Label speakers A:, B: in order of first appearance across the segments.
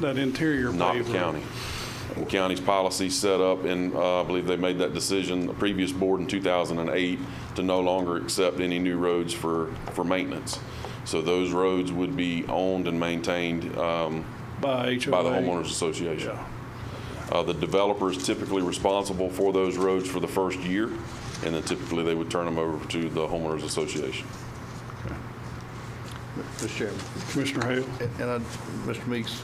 A: that interior paver.
B: not the county. The county's policy set up, and uh, I believe they made that decision, the previous board in 2008, to no longer accept any new roads for, for maintenance. So those roads would be owned and maintained um,
A: By HOA.
B: by the homeowners association.
A: Yeah.
B: Uh, The developer is typically responsible for those roads for the first year, and then typically they would turn them over to the homeowners association.
C: Mr. Chairman,
A: Commissioner Hale,
C: and I, Mr. Meeks,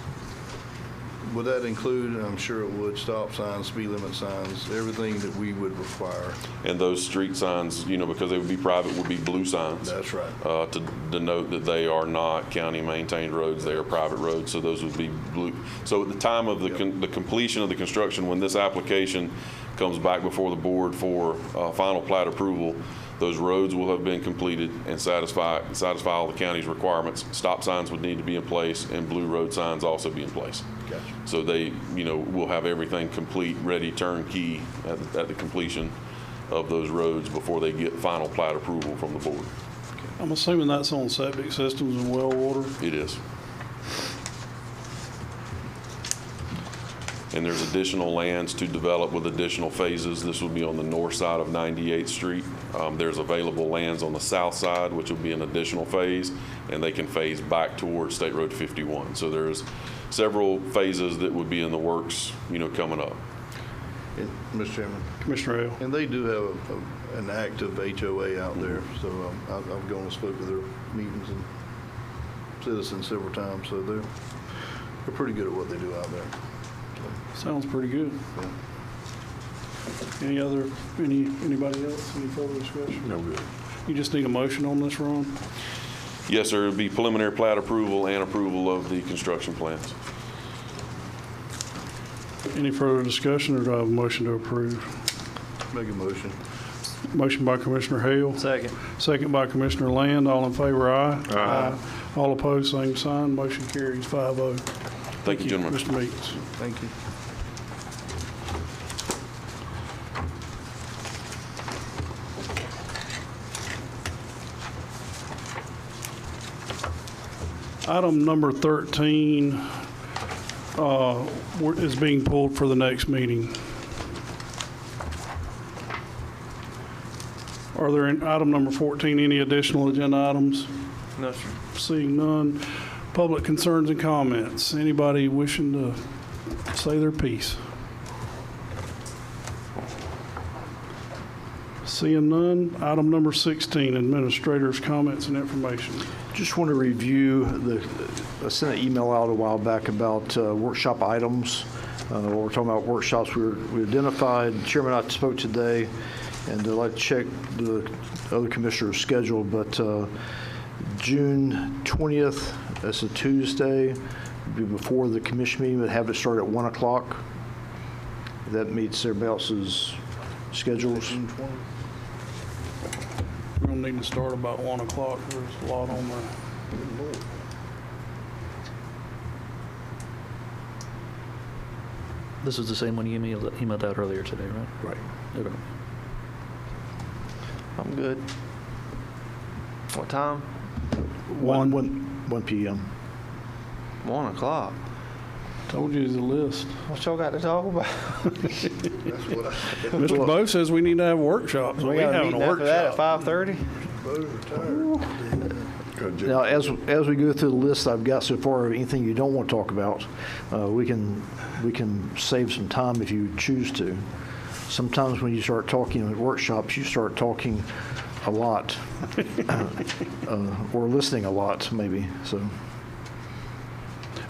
C: would that include, and I'm sure it would, stop signs, speed limit signs, everything that we would require?
B: And those street signs, you know, because they would be private, would be blue signs.
C: That's right.
B: uh, to denote that they are not county-maintained roads, they are private roads, so those would be blue. So at the time of the, con- the completion of the construction, when this application comes back before the board for uh, final plat approval, those roads will have been completed and satisfy, satisfy all the county's requirements. Stop signs would need to be in place, and blue road signs also be in place.
C: Gotcha.
B: So they, you know, will have everything complete, ready, turnkey at, the- at the completion of those roads before they get final plat approval from the board.
A: I'm assuming that's on septic systems and well water.
B: It is. And there's additional lands to develop with additional phases. This will be on the north side of 98th Street. Um, There's available lands on the south side, which will be an additional phase, and they can phase back towards State Road 51. So there's several phases that would be in the works, you know, coming up.
C: And, Mr. Chairman,
A: Commissioner Hale,
C: and they do have a- a- an active HOA out there, so um, I've I've gone and spoke to their meetings and citizens several times, so they're, they're pretty good at what they do out there.
A: sounds pretty good. Any other, any, anybody else, any further discussion?
B: No good.
A: You just need a motion on this, Ron?
B: Yes, sir, it'll be preliminary plat approval and approval of the construction plans.
A: Any further discussion, or do I have a motion to approve?
C: Make a motion.
A: Motion by Commissioner Hale.
D: Second.
A: Second by Commissioner Land. All in favor, aye. Aye. All opposed, same sign. Motion carries five oh.
B: Thank you, gentlemen.
A: Mr. Meeks.
C: Thank you.
A: Item number 13 uh, we're- is being pulled for the next meeting. Are there, in item number 14, any additional agenda items?
D: No, sir.
A: Seeing none. Public concerns and comments. Anybody wishing to say their piece? Seeing none. Item number 16, administrators' comments and information.
E: Just want to review the, I sent an email out a while back about uh, workshop items. Uh, When we're talking about workshops, we were- we identified, Chairman I spoke today, and I'd like to check the other commissioner's schedule, but uh, June 20th, that's a Tuesday, be before the commission meeting, but have it start at 1 o'clock. That meets everybody else's schedules.
A: We're gonna need to start about one o'clock, there's a lot on there.
D: This is the same one you emailed, emailed out earlier today, right?
E: Right.
D: Okay.
F: I'm good. What time?
E: 1, 1 PM.
F: One o'clock.
A: Told you the list.
F: What y'all got to talk about?
C: That's what I said.
A: Mr. Bo says we need to have workshops, we
F: got a
A: having a
F: meeting after that at
A: workshop.
F: five thirty.
E: Now, as, as we go through the list I've got so far, anything you don't want to talk about, uh, we can, we can save some time if you choose to. Sometimes when you start talking at workshops, you start talking a lot, uh, or listening a lot, maybe, so.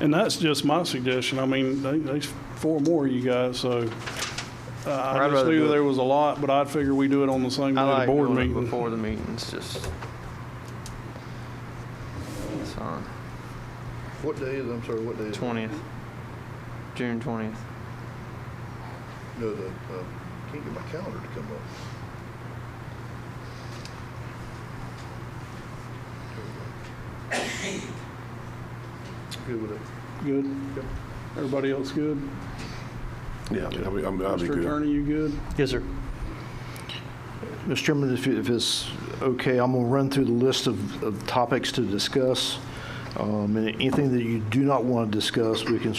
A: And that's just my suggestion, I mean, they, they, four more of you guys, so. uh, I
F: I'd
A: just
F: rather do
A: knew
F: it-
A: there was a lot, but I'd figure we do it on the same
F: I
A: day, the
F: like
A: board
F: doing it
A: meeting.
F: before the meetings. Just. It's fine.
C: What day is, I'm sorry, what day is? it?
F: Twentieth. June twentieth.
C: No, the, uh, can't get my calendar to come up. Good with it.
A: Good? Everybody else good?
G: Yeah, I'll be, I'm- I'll be
A: Mr.
G: good.
A: Attorney, you good?
D: Yes, sir.
E: Mr. Chairman, if it- if it's okay, I'm going to run through the list of, of topics to discuss. Um, And anything that you do not want to discuss, we can